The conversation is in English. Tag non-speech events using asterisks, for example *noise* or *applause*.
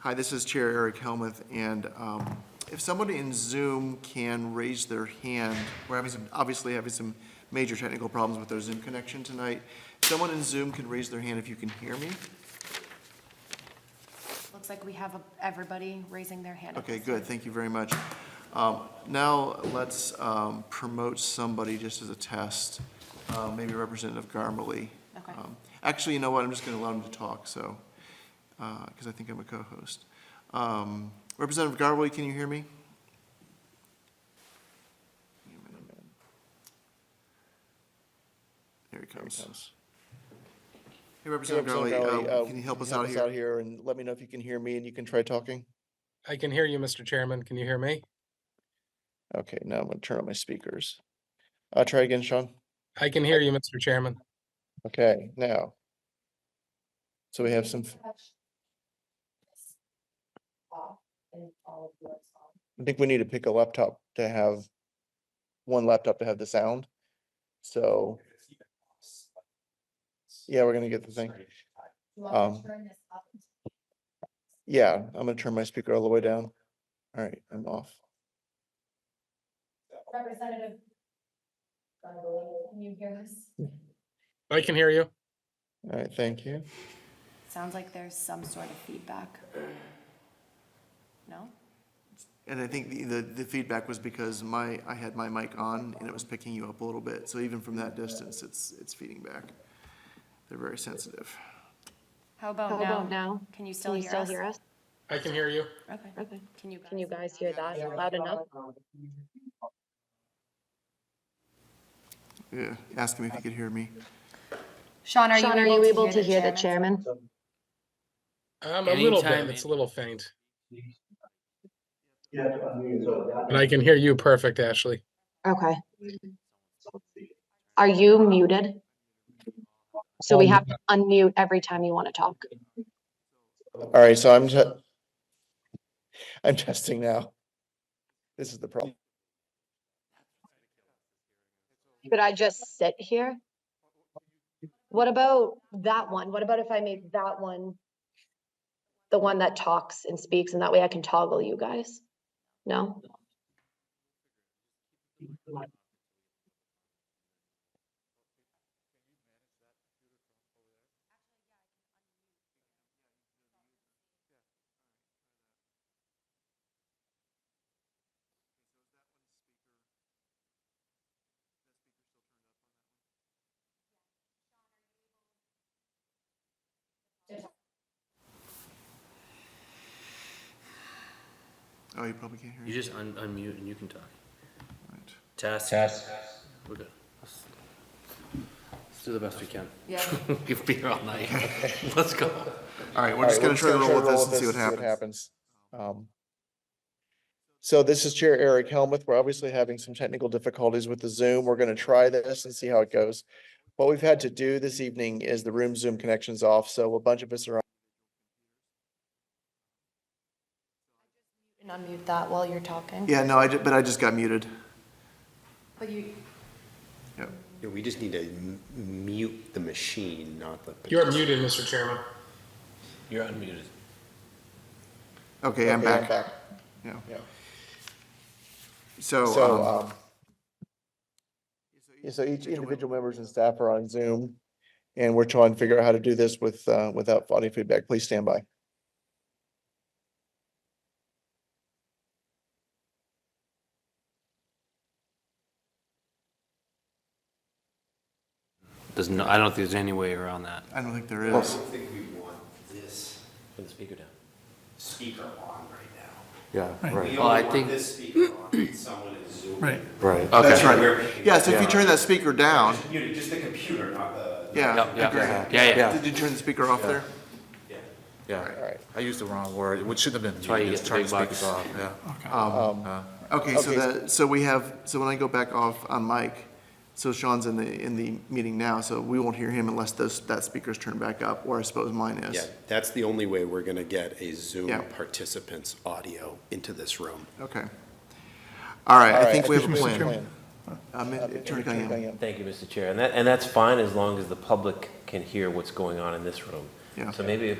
Hi, this is Chair Eric Helmuth, and um, if somebody in Zoom can raise their hand, we're having some, obviously having some major technical problems with our Zoom connection tonight. Someone in Zoom can raise their hand if you can hear me. Looks like we have a- everybody raising their hand. at Okay, this good, thank you very much. Um, Now, let's um, promote somebody just as a test, uh, maybe Representative Garmley. Okay. Um, Actually, you know what, I'm just going to allow him to talk, so, because I think I'm a co-host. Um, Representative Garmley, can you hear me? There he comes. Hey, Representative Representative Garmley, Crowley, uh, uh, can you help us help out here? here and let me know if you can hear me and you can try talking? I can hear you, Mr. Chairman. Can you hear me? Okay, now I'm gonna turn on my speakers. Uh, try again, Sean. I can hear you, Mr. Chairman. Okay, now. So we have some, Um, f- I think we need to pick a laptop to have, one laptop to have the sound. So, yeah, we're gonna get the thing. Um, Yeah, I'm gonna turn my speaker all the way down. All right, I'm off. Representative. Gargoyle, Can you hear us? I can hear you. All right, thank you. time. Sounds like there's some sort of feedback. No? And I think the, the, the feedback was because my, I had my mic on and it was picking you up a little bit, so even from that distance, it's, it's feeding back. They're very sensitive. How about How about now? now? Can you still Oh, Can you hear still us? hear us? I can hear you. Okay. Okay. Can you? Can you guys hear that loud enough? Yeah, ask him if he could hear me. Sean, are Sean, are you able to hear the chairman? chairman? Um, a little bit. Anytime, It's a any- little faint. But I can hear you perfect, Ashley. Okay. Are you muted? So we Um, have to unmute every time you want to talk. All right, so I'm just, I'm testing now. This is the problem. Could I just sit here? What about that one? What about if I make that one the one that talks and speaks and that way I can toggle you guys? No? Oh, you probably can't You hear me. just un- unmute and you can talk. Right. Test. Test. We're good. Let's let's do the best we can. *laughs* Yeah. Give beer all night. *laughs* Let's go. All right, we're All just right, gonna try to roll with this and see what and happens. Um, So this is Chair Eric Helmuth. We're obviously having some technical difficulties with the Zoom. We're going to try this and see how it goes. What we've had to do this evening is the room Zoom connection's off, so a bunch of us are on. And unmute that while you're talking. Yeah, no, I, ju- but I just got muted. But you, Yep. Yeah, we just need to m- mute the machine, not the. You're muted, Mr. Chairman. You're unmuted. Okay, I'm Okay, back. Yeah. Yeah. So, So, um, um, yeah, so each individual members and staff are on Zoom, and we're trying to figure out how to do this with, uh, without audio feedback. Please stand by. There's no, I don't think there's any way around that. I don't think there is. think we want this Put the speaker down. speaker on right Yeah, right. now. Well, I think, this speaker on, someone is zooming. Right. right. That's Okay. right. Yeah, so if you turn that speaker down, just the computer, not the. yeah. Yep, yep. agreed. Yeah, yeah. Did you turn the speaker off there? Yeah, I used the wrong word, which shouldn't have been. That's why you muted, get the it's big trying to speak bucks. it off, yeah. Okay, so Okay, so- that, so we have, so when I go back off on mic, so Sean's in the, in the meeting now, so we won't hear him unless those, that speaker's turned back up, or I suppose mine Yeah, is. that's the only way we're gonna get a Zoom Yeah. participant's audio into this room. Okay. All right, All I right, think we have a plan. plan. Um, Attorney Cunningham. Cunningham. Thank you, Mr. Chair. And that, and that's fine as long as the public can hear what's going on in this room. Yeah. So maybe if